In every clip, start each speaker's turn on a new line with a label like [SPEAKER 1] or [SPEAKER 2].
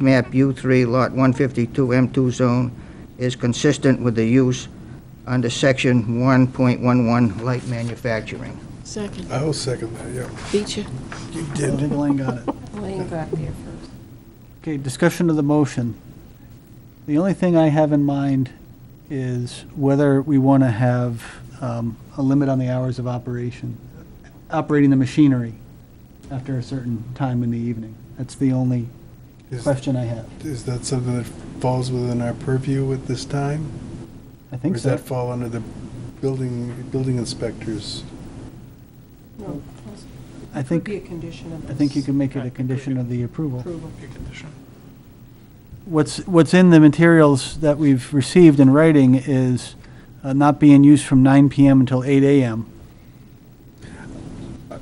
[SPEAKER 1] map U3, Lot 152, M2 zone is consistent with the use under Section 1.11 light manufacturing.
[SPEAKER 2] Second,
[SPEAKER 3] I will second that, yeah.
[SPEAKER 2] feature.
[SPEAKER 3] You
[SPEAKER 4] I
[SPEAKER 3] did.
[SPEAKER 4] think Elaine got it.
[SPEAKER 5] Elaine got there first.
[SPEAKER 4] Okay, discussion of the motion. The only thing I have in mind is whether we want to have um, a limit on the hours of operation, operating the machinery after a certain time in the evening. That's the only
[SPEAKER 3] Is-
[SPEAKER 4] question I have.
[SPEAKER 3] Is that something that falls within our purview at this time?
[SPEAKER 4] I think
[SPEAKER 3] Or does
[SPEAKER 4] so.
[SPEAKER 3] that fall under the building, building inspectors?
[SPEAKER 5] No,
[SPEAKER 4] I
[SPEAKER 5] it would be a
[SPEAKER 4] think,
[SPEAKER 5] condition of
[SPEAKER 4] I think you
[SPEAKER 5] this
[SPEAKER 4] can make it a condition of the approval.
[SPEAKER 5] approval.
[SPEAKER 4] What's, what's in the materials that we've received in writing is uh, not being used from 9 PM until 8 AM.
[SPEAKER 3] I-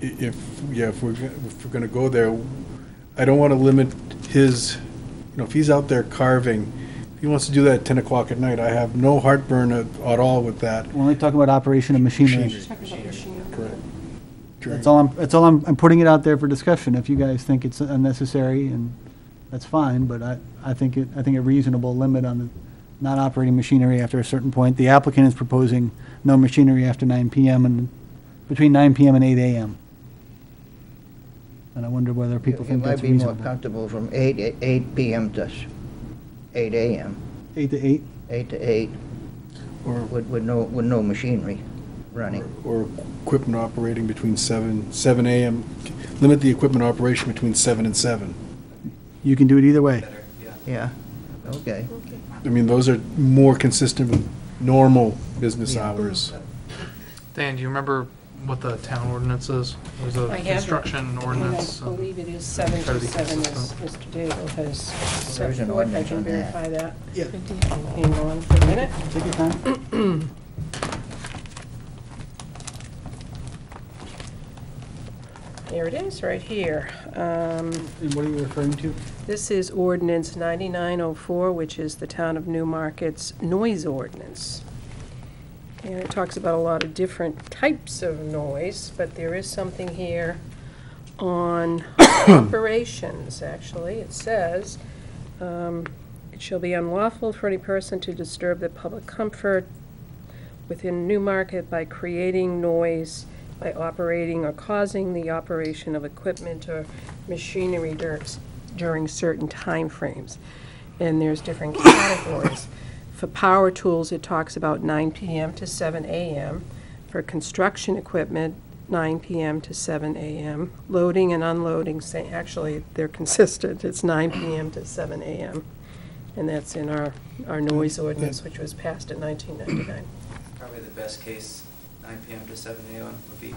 [SPEAKER 3] If, yeah, if we're, go- if we're gonna go there, I don't wanna limit his, you know, if he's out there carving, if he wants to do that at ten o'clock at night, I have no heartburn at, at all with that.
[SPEAKER 4] We're only talking about operation of machinery.
[SPEAKER 3] Machinery.
[SPEAKER 5] Talk about machinery.
[SPEAKER 3] Correct.
[SPEAKER 4] That's all I'm, that's all I'm, I'm putting it out there for discussion. If you guys think it's unnecessary, and that's fine, but I, I think it, I think a reasonable limit on the not operating machinery after a certain point. The applicant is proposing no machinery after nine PM and, between nine PM and eight AM. And I wonder whether people think that's
[SPEAKER 1] It might be more
[SPEAKER 4] reasonable.
[SPEAKER 1] comfortable from 8, a- 8 PM to s- 8 AM,
[SPEAKER 4] Eight to eight?
[SPEAKER 1] 8 to 8,
[SPEAKER 3] Or,
[SPEAKER 1] with, with no, with no machinery running.
[SPEAKER 3] or equipment operating between seven, seven AM, limit the equipment operation between seven and seven.
[SPEAKER 4] You can do it either way.
[SPEAKER 1] Yeah, okay.
[SPEAKER 3] I mean, those are more consistent with normal business
[SPEAKER 1] Yeah.
[SPEAKER 3] hours.
[SPEAKER 6] Dan, do you remember what the town ordinance is? There's
[SPEAKER 5] I
[SPEAKER 6] a
[SPEAKER 5] have it.
[SPEAKER 6] construction ordinance.
[SPEAKER 5] And I
[SPEAKER 6] um,
[SPEAKER 5] believe it is seven
[SPEAKER 6] try
[SPEAKER 5] to
[SPEAKER 6] to be
[SPEAKER 5] seven, as
[SPEAKER 6] consistent.
[SPEAKER 5] Mr. Daigle has
[SPEAKER 1] There
[SPEAKER 5] set
[SPEAKER 1] is an
[SPEAKER 5] forth. I
[SPEAKER 1] ordinance
[SPEAKER 5] can
[SPEAKER 1] on that.
[SPEAKER 5] verify that.
[SPEAKER 2] Good deal.
[SPEAKER 5] Hang on for a minute.
[SPEAKER 4] Take your time.
[SPEAKER 5] There it is, right here. Um,
[SPEAKER 4] And what are you referring to?
[SPEAKER 5] This is ordinance 9904, which is the Town of New Market's noise ordinance. And it talks about a lot of different types of noise, but there is something here on operations, actually. It says, um, "It shall be unlawful for any person to disturb the public comfort within New Market by creating noise, by operating or causing the operation of equipment or machinery dur- during certain timeframes. And there's different categories. For power tools, it talks about 9 PM to 7 AM. For construction equipment, 9 PM to 7 AM. Loading and unloading, say, actually, they're consistent, it's 9 PM to 7 AM. And that's in our, our noise ordinance, which was passed in 1999.
[SPEAKER 7] Probably the best case, nine PM to seven AM would be, would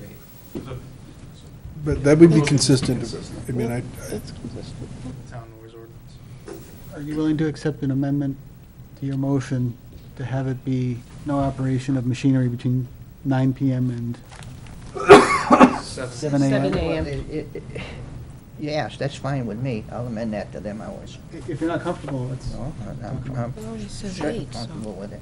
[SPEAKER 7] be great.
[SPEAKER 3] But that would be consistent. I mean, I,
[SPEAKER 6] Town noise ordinance.
[SPEAKER 4] Are you willing to accept an amendment to your motion to have it be no operation of machinery between 9 PM and
[SPEAKER 7] Seven.
[SPEAKER 4] 7 AM?
[SPEAKER 5] 7 a.m.
[SPEAKER 1] Well, it- it- it- Yes, that's fine with me. I'll amend that to them hours.
[SPEAKER 4] If you're not comfortable, it's,
[SPEAKER 1] No, I'm, I'm
[SPEAKER 2] It only says
[SPEAKER 1] certainly
[SPEAKER 2] eight, so-
[SPEAKER 1] comfortable with it.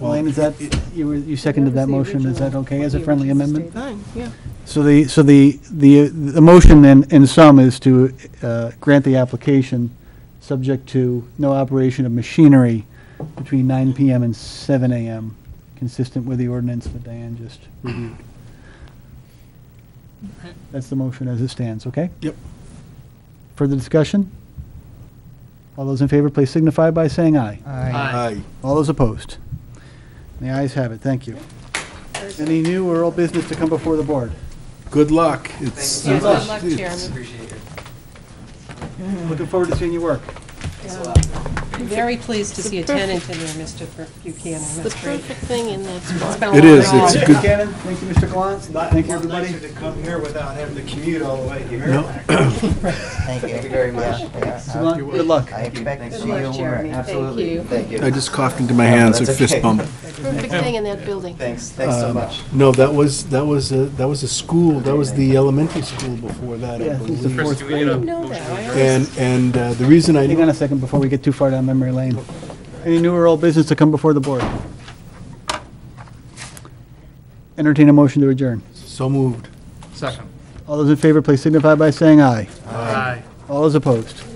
[SPEAKER 4] Elaine, is that, you were- you seconded
[SPEAKER 5] That
[SPEAKER 4] that
[SPEAKER 5] was the
[SPEAKER 4] motion, is that
[SPEAKER 5] original-
[SPEAKER 4] okay
[SPEAKER 5] what
[SPEAKER 4] as a
[SPEAKER 5] the
[SPEAKER 4] friendly
[SPEAKER 5] original
[SPEAKER 4] amendment?
[SPEAKER 2] Fine, yeah.
[SPEAKER 4] So the, so the, the, the motion in, in sum is to uh, grant the application, subject to no operation of machinery between 9 PM and 7 AM, consistent with the ordinance that Diane just reviewed. That's the motion as it stands, okay?
[SPEAKER 3] Yep.
[SPEAKER 4] Further discussion? All those in favor, please signify by saying aye.
[SPEAKER 1] I
[SPEAKER 3] I,
[SPEAKER 4] All those opposed? The ayes have it, thank you. Any new or old business to come before the board?
[SPEAKER 3] good luck. It's-
[SPEAKER 5] Yeah,
[SPEAKER 3] it's-
[SPEAKER 5] good luck, Chairman.
[SPEAKER 7] Appreciate it.
[SPEAKER 4] Looking forward to seeing you work.
[SPEAKER 7] Thanks a lot.
[SPEAKER 5] I'm very pleased to see a tenant in there, Mr. Buchanan,
[SPEAKER 2] It's the
[SPEAKER 5] that's great.
[SPEAKER 2] perfect thing in that spot.
[SPEAKER 3] It is, it's
[SPEAKER 4] Thank you,
[SPEAKER 3] good.
[SPEAKER 4] Cannon. Thank you, Mr. Gallant. Thank you, everybody.
[SPEAKER 8] nicer to come here without having to commute all the way here.
[SPEAKER 1] Thank you.
[SPEAKER 7] Thank you very much.
[SPEAKER 1] Yeah, yeah.
[SPEAKER 4] Mr. Gallant, Good luck.
[SPEAKER 1] I expect to
[SPEAKER 7] Thanks
[SPEAKER 1] see
[SPEAKER 7] so much.
[SPEAKER 1] you
[SPEAKER 5] Jeremy.
[SPEAKER 1] work.
[SPEAKER 5] Thank
[SPEAKER 7] Absolutely.
[SPEAKER 5] you.
[SPEAKER 1] Thank you.
[SPEAKER 3] I just coughed into my hands, a
[SPEAKER 7] That's
[SPEAKER 3] fist
[SPEAKER 7] okay.
[SPEAKER 3] bump.
[SPEAKER 2] Perfect thing in that building.
[SPEAKER 7] Thanks, thanks
[SPEAKER 3] um,
[SPEAKER 7] so much.
[SPEAKER 3] No, that was, that was, a- that was a school, that was the elementary school before that, I
[SPEAKER 4] Yeah, it's the
[SPEAKER 3] believe.
[SPEAKER 4] fourth
[SPEAKER 6] Chris, do we need a
[SPEAKER 4] grade.
[SPEAKER 5] know that.
[SPEAKER 6] motion?
[SPEAKER 5] I
[SPEAKER 3] And, and uh, the reason I
[SPEAKER 4] Hang on
[SPEAKER 3] know
[SPEAKER 4] a second before we get too far down memory lane. Any new or old business to come before the board? Entertain a motion to adjourn.
[SPEAKER 3] so moved.
[SPEAKER 6] Second.
[SPEAKER 4] All those in favor, please signify by saying aye.
[SPEAKER 6] Aye.
[SPEAKER 4] All those opposed?